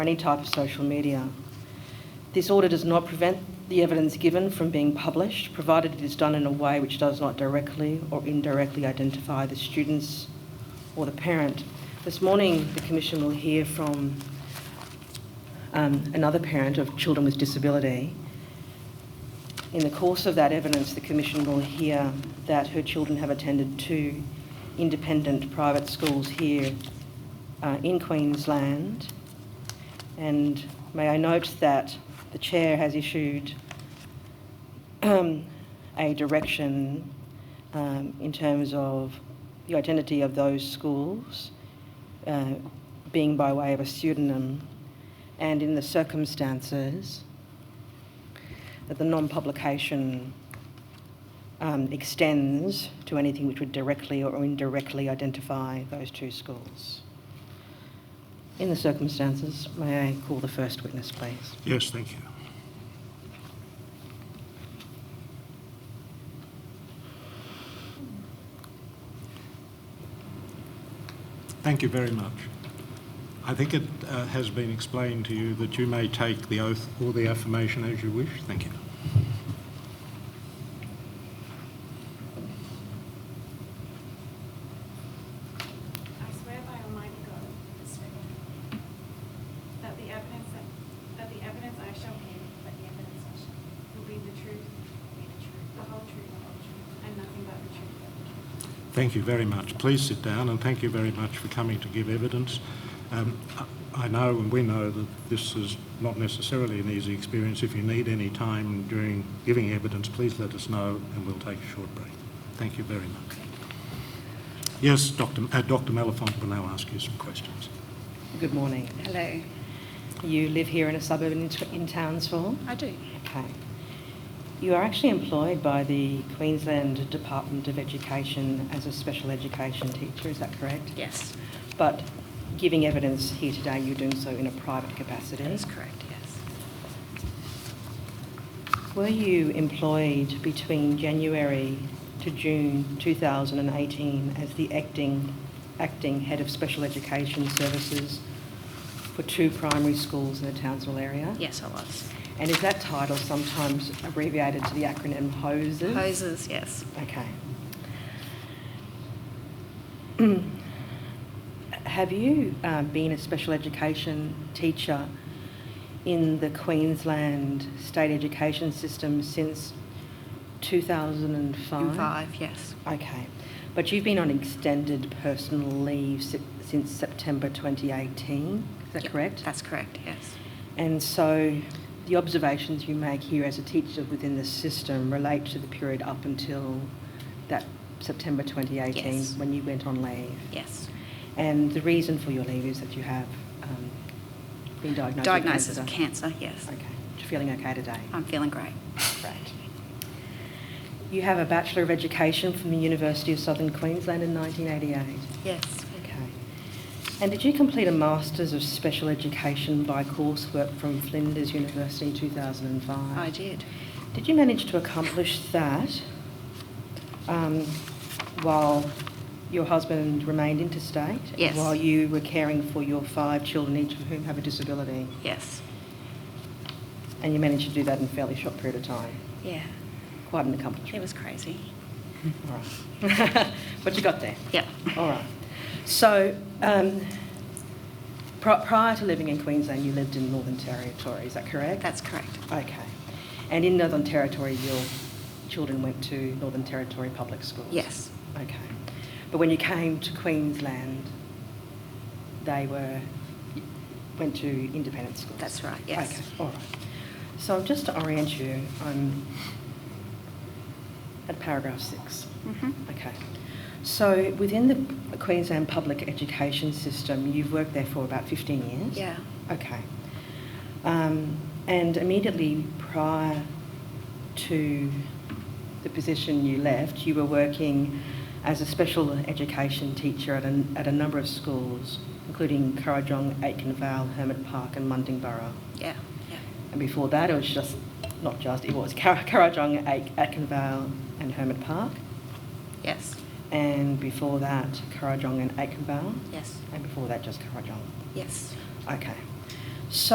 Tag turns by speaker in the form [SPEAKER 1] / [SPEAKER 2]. [SPEAKER 1] any type of social media. This order does not prevent the evidence given from being published, provided it is done in a way which does not directly or indirectly identify the students or the parent. This morning, the Commission will hear from um, another parent of children with disability. In the course of that evidence, the Commission will hear that her children have attended two independent private schools here uh, in Queensland. And may I note that the Chair has issued um, a direction um, in terms of the identity of those schools uh, being by way of a pseudonym and in the circumstances that the non publication um, extends to anything which would directly or indirectly identify those two schools. In the circumstances, may I call the first witness, please?
[SPEAKER 2] Yes, thank you. Thank you very much. I think it uh, has been explained to you that you may take the oath or the affirmation as you wish. Thank you.
[SPEAKER 3] I swear by Almighty God, this ring, that the evidence that, that the evidence I shall give, that the evidence I shall give, will be the truth, will be the truth, the whole truth, the whole truth, and nothing but the truth, but the truth.
[SPEAKER 2] Thank you very much. Please sit down and thank you very much for coming to give evidence. Um, I I know and we know that this is not necessarily an easy experience. If you need any time during giving evidence, please let us know and we'll take a short break. Thank you very much. Yes, Dr. Uh, Dr. Malafont will now ask you some questions.
[SPEAKER 1] Good morning.
[SPEAKER 4] Hello.
[SPEAKER 1] You live here in a suburb in, in Townsville?
[SPEAKER 4] I do.
[SPEAKER 1] Okay. You are actually employed by the Queensland Department of Education as a special education teacher, is that correct?
[SPEAKER 4] Yes.
[SPEAKER 1] But giving evidence here today, you're doing so in a private capacity?
[SPEAKER 4] That is correct, yes.
[SPEAKER 1] Were you employed between January to June 2018 as the acting, acting head of special education services for two primary schools in the Townsville area?
[SPEAKER 4] Yes, I was.
[SPEAKER 1] And is that title sometimes abbreviated to the acronym HOSES?
[SPEAKER 4] Hoses, yes.
[SPEAKER 1] Okay. Have you um, been a special education teacher in the Queensland state education system since 2005?
[SPEAKER 4] In five, yes.
[SPEAKER 1] Okay. But you've been on extended personal leave si- since September 2018, is that
[SPEAKER 4] Yep,
[SPEAKER 1] correct?
[SPEAKER 4] That's correct, yes.
[SPEAKER 1] And so the observations you make here as a teacher within the system relate to the period up until that September 2018
[SPEAKER 4] Yes.
[SPEAKER 1] when you went on leave.
[SPEAKER 4] Yes.
[SPEAKER 1] And the reason for your leave is that you have um, been diagnosed
[SPEAKER 4] Diagnosis of
[SPEAKER 1] with
[SPEAKER 4] cancer, yes.
[SPEAKER 1] Okay. You're feeling okay today?
[SPEAKER 4] I'm feeling great.
[SPEAKER 1] Great. You have a Bachelor of Education from the University of Southern Queensland in 1988.
[SPEAKER 4] Yes.
[SPEAKER 1] Okay. And did you complete a Masters of Special Education by coursework from Flinders University in 2005?
[SPEAKER 4] I did.
[SPEAKER 1] Did you manage to accomplish that um, while your husband remained interstate?
[SPEAKER 4] Yes.
[SPEAKER 1] While you were caring for your five children, each of whom have a disability?
[SPEAKER 4] Yes.
[SPEAKER 1] And you managed to do that in a fairly short period of time?
[SPEAKER 4] Yeah.
[SPEAKER 1] Quite an
[SPEAKER 4] It
[SPEAKER 1] accomplishment.
[SPEAKER 4] was crazy.
[SPEAKER 1] All right. But you got there?
[SPEAKER 4] Yep.
[SPEAKER 1] All right. So, um, pri- prior to living in Queensland, you lived in Northern Territory, is that correct?
[SPEAKER 4] That's correct.
[SPEAKER 1] Okay. And in Northern Territory, your children went to Northern Territory public schools?
[SPEAKER 4] Yes.
[SPEAKER 1] Okay. But when you came to Queensland, they were, went to independent schools?
[SPEAKER 4] That's right, yes.
[SPEAKER 1] Okay, all right. So just to orient you, I'm at paragraph six.
[SPEAKER 4] Mm-hmm.
[SPEAKER 1] Okay. So within the Queensland public education system, you've worked there for about 15 years?
[SPEAKER 4] Yeah.
[SPEAKER 1] Okay. Um, and immediately prior to the position you left, you were working as a special education teacher at a, at a number of schools, including Currajong, Aitken Vale, Hermit Park, and Mundingborough.
[SPEAKER 4] Yeah. Yeah.
[SPEAKER 1] And before that, it was just, not just, it was Cur- Currajong, Aik- Aitken Vale, and Hermit Park.
[SPEAKER 4] Yes.
[SPEAKER 1] And before that, Currajong and Aikenvale.
[SPEAKER 4] Yes.
[SPEAKER 1] And before that, just Currajong.
[SPEAKER 4] Yes.
[SPEAKER 1] Okay.